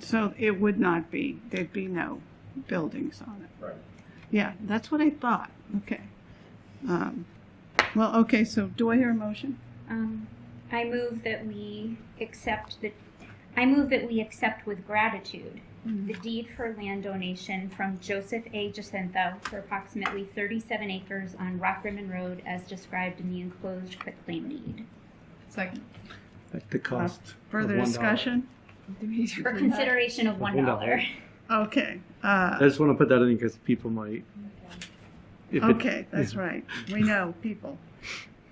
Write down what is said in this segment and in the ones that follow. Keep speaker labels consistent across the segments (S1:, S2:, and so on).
S1: So it would not be, there'd be no buildings on it.
S2: Right.
S1: Yeah, that's what I thought, okay. Um, Well, okay, so do I hear a motion?
S3: Um, I move that we accept the, I move that we accept with gratitude
S4: Hmm.
S3: the deed for land donation from Joseph A. Jacinto for approximately thirty-seven acres on Rock Rimmon Road as described in the enclosed quitclaim deed.
S4: Second.
S5: At the cost. of
S1: Uh, Further
S5: $1.
S1: discussion?
S4: Mhm.
S3: For consideration of one dollar.
S1: Okay,
S5: I
S1: uh,
S5: just want to put that in because people might. if it-
S1: okay, that's right, we know, people.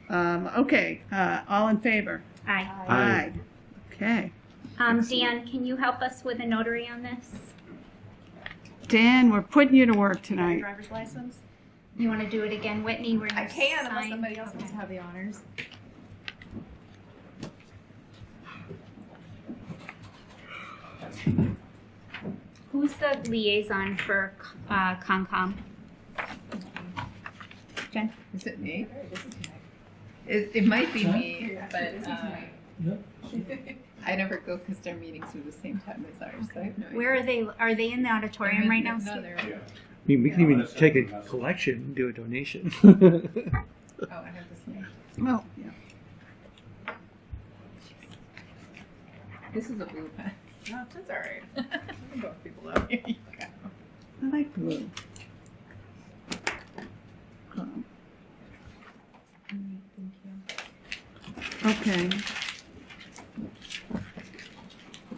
S1: Um, Okay, uh, all in favor?
S3: Aye.
S5: Aye.
S1: Okay.
S4: Uh,
S3: Um, Dan, can you help us with a notary on this?
S1: Dan, we're putting you to work tonight.
S4: Driver's license?
S3: You wanna do it again, Whitney, where you
S4: I can unless
S3: sign?
S4: somebody else wants
S3: Okay.
S4: to have the honors.
S3: Who's the liaison for, uh, Concom?
S4: Is it me? It, it might be me, but uh, I never go because their meetings are the same time as ours, so I have no idea.
S3: Where are they, are they in the
S4: They're in-
S3: auditorium right now?
S4: No,
S3: Steve?
S4: they're,
S2: Yeah.
S5: I mean, we can
S2: Yeah.
S5: even take a collection and do a donation.
S4: oh, I have this one.
S1: Well, yeah.
S4: This is a blue pen. No, that's all right. I can go with people up. Here you go.
S1: I like blue. Um, Okay.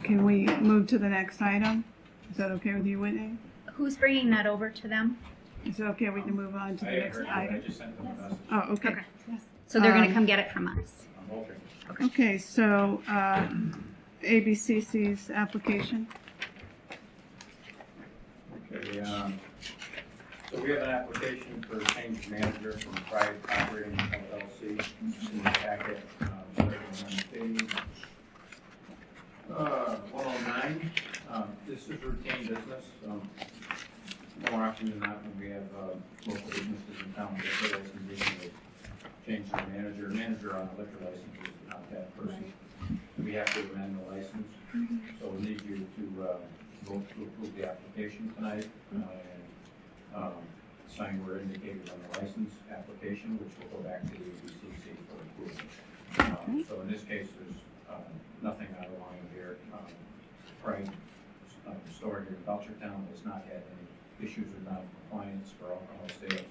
S1: Can we move to the next item? Is that okay with you, Whitney?
S3: Who's bringing that over to them?
S1: Is it okay we can move on to
S2: I
S1: the
S2: have
S1: next
S2: heard that. I
S1: item?
S2: just sent them a message.
S1: Oh, okay.
S3: Okay. So they're going
S1: Um,
S3: to come get it from us.
S2: I'm hoping.
S1: Okay, so uh, ABCC's application,
S2: Okay, um, so we have an application for change manager from Private Operating LLC in the packet, um, on page, uh, one oh nine, um, this is routine business, um, more often than not, when we have, uh, local businesses in town, they put us in need to change the manager, manager on a liquor license is not that person. We have to amend the license, so we need you to, uh, vote to approve the application tonight, uh, and, um, sign where indicated on the license application, which will go back to the ABCC for approval. Um, So in this case, there's, um, nothing out of line here. Um, Pride, uh, store here in Belchertown has not had any issues with non-compliance for alcohol sales.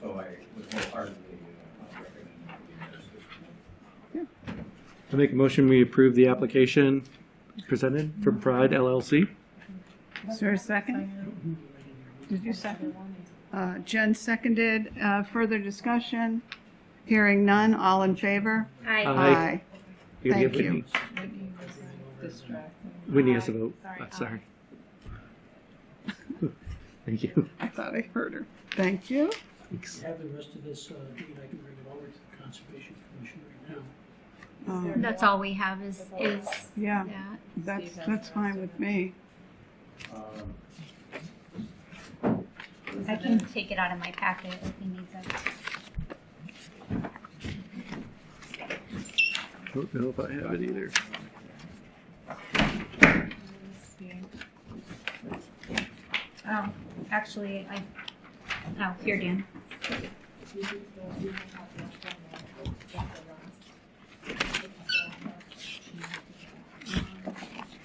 S2: So I would wholeheartedly, uh, recommend that we endorse this tonight.
S5: I make a motion we approve the application presented from Pride LLC.
S1: is there a second? Did you second? Uh, Jen seconded, Uh, further discussion, hearing none, all in favor?
S3: I,
S5: Aye. You're gonna
S1: Thank
S5: give
S1: you.
S5: Whitney-
S4: Whitney was distracted.
S5: Whitney has a vote.
S4: Sorry,
S5: Oh,
S4: aye.
S5: Sorry. Thank you.
S1: I thought I heard her. Thank you.
S5: Thanks.
S6: have the rest of this, uh, deed, I can bring it over to the Conservation Commission right now.
S1: Um,
S3: that's all we have is, is
S1: Yeah,
S3: that.
S1: that's, that's fine with me.
S2: Um,
S3: I can take it out of my packet if he needs it.
S5: Don't know if I have it either.
S3: Oh, actually, I, oh, here, Dan.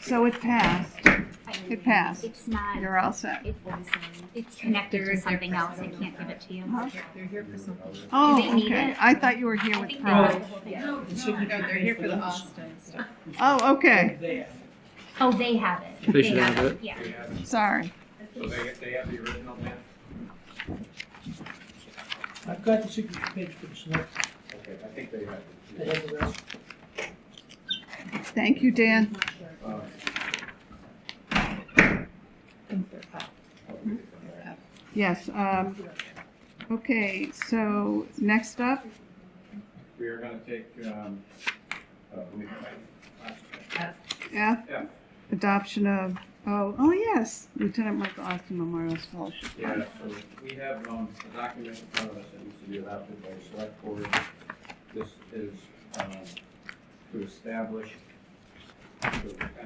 S1: So it passed. It passed.
S3: It's not,
S1: You're all set.
S3: it- it's connected to something else. I can't give it to you.
S1: Huh?
S4: They're here for something.
S1: Oh,
S3: Do they need
S1: okay.
S3: it?
S1: I thought you were
S3: I
S1: here with
S3: think they got
S1: Pride.
S3: the whole thing.
S4: No, Oh, no, they're here for the Austin stuff.
S1: Oh, okay.
S6: There.
S3: Oh, they have it.
S5: They should have it.
S3: Yeah.
S2: we have
S1: Sorry.
S2: So they, they have the original map?
S6: I've got the signature page for the select,
S2: Okay, I think they have.
S6: they
S2: it.
S6: have the rest.
S1: Thank you, Dan.
S2: Uh,
S4: I think they're up.
S2: okay, okay.
S1: Yes. Um, okay, so next up,
S2: We are gonna take, um, uh, let me-
S1: F,
S2: Yeah.
S1: adoption of, oh, oh, yes, Lieutenant Michael Austin Memorial Scholarship.
S2: Yeah, so we have, um, a document in front of us that needs to be adopted by the select board. This is, um, to establish, to